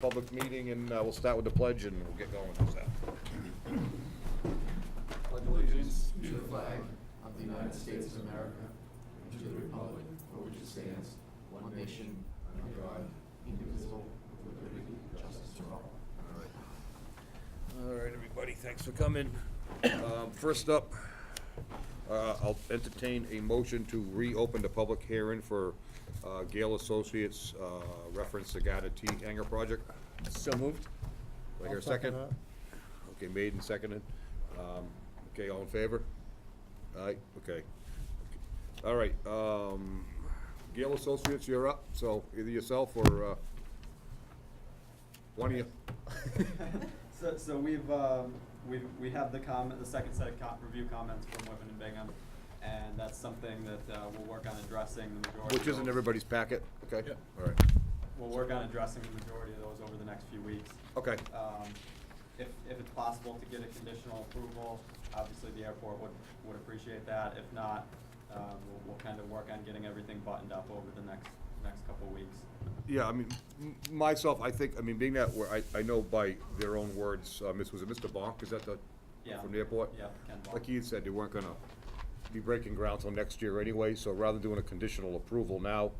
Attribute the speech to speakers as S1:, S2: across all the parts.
S1: public meeting, and uh, we'll start with the pledge, and we'll get going. How's that?
S2: allegiance to the flag of the United States of America, and to the republic for which it stands, one nation, under God, indivisible, with liberty and justice for all.
S1: All right, everybody, thanks for coming. Um, First up, uh, I'll entertain a motion to reopen the public hearing for uh, Gale Associates uh, reference to Gata T Hanger Project.
S3: So moved?
S1: Do I hear a second? Okay, made and seconded. Um, Okay, all in favor? Aye, okay. All right, um, Gale Associates, you're up, so either yourself or uh, one of you.
S4: So, so we've, um, we've, we have the comment, the second set of com- review comments from Whitman and Bingham, and that's something that, uh, we'll work on addressing the majority.
S1: Which isn't
S4: of-
S1: everybody's packet, okay? All right,
S4: We'll work on addressing the majority of those over the next few weeks.
S1: okay.
S4: Um, if, if it's possible to get a conditional approval, obviously the airport would, would appreciate that. If not, um, we'll, we'll kind of work on getting everything buttoned up over the next, next couple of weeks.
S1: Yeah, I mean, m- myself, I think, I mean, being that, where I, I know by their own words, uh, Miss, was it Mr. Bonk, is that the,
S4: Yeah.
S1: from the airport?
S4: Yeah, Ken Ball.
S1: Like he had said, they weren't gonna be breaking ground till next year anyway, so rather than doing a conditional approval now,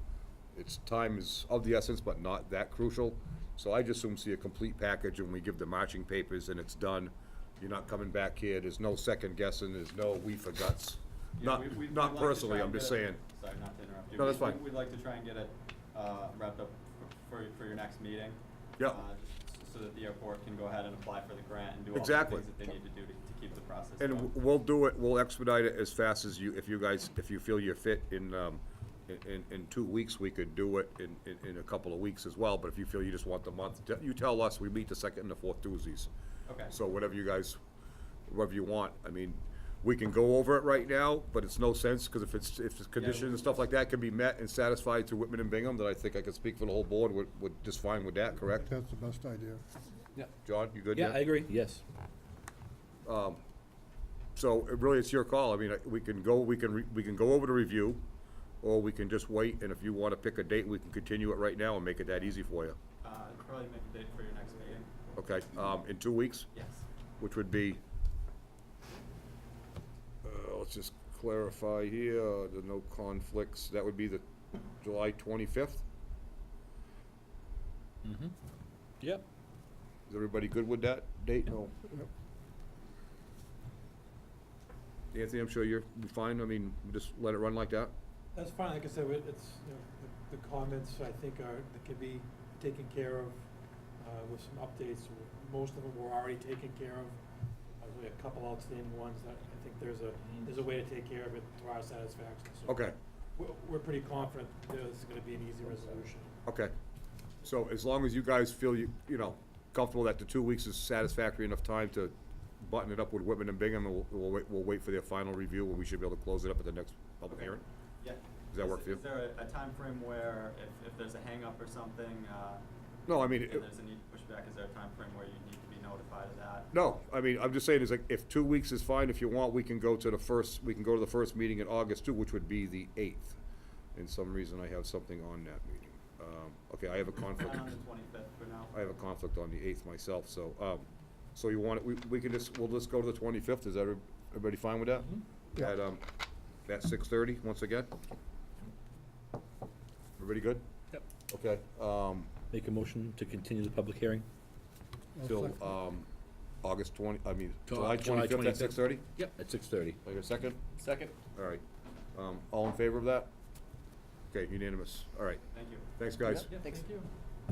S1: it's, time is of the essence, but not that crucial. So I just assume see a complete package and we give the marching papers and it's done. You're not coming back here, there's no second guessing, there's no we forgots.
S4: Yeah,
S1: Not,
S4: we- we- we'd like
S1: not
S4: to try
S1: personally,
S4: and
S1: I'm
S4: get
S1: just
S4: it-
S1: saying.
S4: Sorry, not to interrupt you.
S1: No,
S4: We-
S1: that's fine.
S4: we- We'd like to try and get it uh, wrapped up for, for your next meeting.
S1: Yeah.
S4: uh, just s- So that the airport can go ahead and apply for the grant and do all the
S1: Exactly.
S4: things that they need to do to, to keep the process
S1: And
S4: going.
S1: w- we'll do it, we'll expedite it as fast as you, if you guys, if you feel you're fit in, um, in- in, in two weeks, we could do it in, in, in a couple of weeks as well, but if you feel you just want the month, t- you tell us, we meet the second and the fourth Tuesdays.
S4: Okay.
S1: So whatever you guys, whatever you want, I mean, we can go over it right now, but it's no sense, cause if it's, if the conditions and stuff like that can be met and satisfied to Whitman and Bingham, then I think I could speak for the whole board, would, would just fine with that, correct?
S5: That's the best idea.
S1: John, you good?
S3: Yeah, I agree, yes.
S1: Um, So it really, it's your call. I mean, I- we can go, we can, re- we can go over the review, or we can just wait, and if you wanna pick a date, we can continue it right now and make it that easy for you.
S4: Uh, Probably make a date for your next meeting.
S1: Okay, um, in two weeks,
S4: Yes.
S1: which would be, uh, let's just clarify here, uh, the no conflicts, that would be the July twenty-fifth?
S3: Mm-hmm. Yep.
S1: Is everybody good with that date? No.
S5: Yep.
S1: Anthony, I'm sure you're fine. I mean, just let it run like that?
S6: That's fine, like I said, we- it's, you know, the- the comments, I think, are, that can be taken care of uh, with some updates. Most of them were already taken care of. There's only a couple outstanding ones that I think there's a, there's a way to take care of it to our satisfaction. So
S1: Okay.
S6: We're, we're pretty confident there's gonna be an easy resolution.
S1: Okay, so as long as you guys feel you, you know, comfortable that the two weeks is satisfactory enough time to button it up with Whitman and Bingham, and we'll, we'll wait, we'll wait for their final review, and we should be able to close it up at the next public hearing?
S4: Yeah.
S1: Does that
S4: Is-
S1: work for you?
S4: Is there a- a time frame where if, if there's a hang up or something, uh,
S1: No, I mean,
S4: and
S1: it-
S4: there's a need to push back, is there a time frame where you need to be notified of that?
S1: no, I mean, I'm just saying, is like, if two weeks is fine, if you want, we can go to the first, we can go to the first meeting in August too, which would be the eighth. And some reason, I have something on that meeting. Um, okay, I have a conflict.
S4: Not on the twenty-fifth for now.
S1: I have a conflict on the eighth myself, so, um, so you want, it- we, we can just, we'll just go to the twenty-fifth, is every- everybody fine with that?
S5: Yeah.
S1: At, um, at six-thirty, once again? Everybody good?
S3: Yep.
S1: Okay, um,
S3: Make a motion to continue the public hearing?
S5: I'll
S1: till,
S5: second.
S1: um, August twenty, I mean,
S3: Ju-
S1: July
S3: July
S1: twenty-fifth at
S3: 25th.
S1: six-thirty?
S3: Yep. At six thirty.
S1: Like a second?
S3: Second.
S1: All right, um, all in favor of that? Okay, unanimous, all right,
S4: Thank you.
S1: thanks, guys.
S3: Thanks.
S6: Thank you.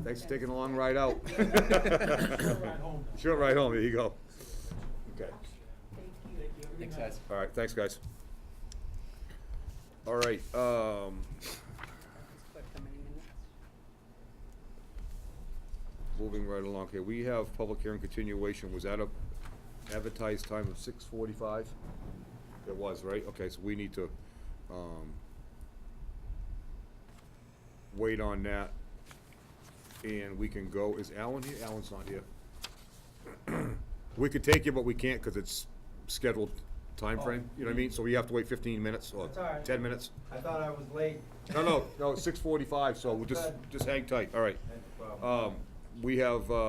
S1: Thanks for taking a long ride out.
S6: Short ride home.
S1: Short ride home, there you go. Okay.
S3: Thanks, guys.
S1: All right, thanks, guys. All right, um, moving right along here, we have public hearing continuation, was that a advertised time of six forty-five? It was, right, okay, so we need to, um, wait on that, and we can go, is Alan here? Alan's not here. We could take you, but we can't, cause it's scheduled timeframe, you know what I mean, so we have to wait fifteen minutes or
S7: That's all right.
S1: ten minutes.
S7: I thought I was late.
S1: No, no, no, it's six forty-five, so we'll
S7: That's
S1: just,
S7: good.
S1: just hang tight, all right.
S7: That's the problem.
S1: Um, we have, uh,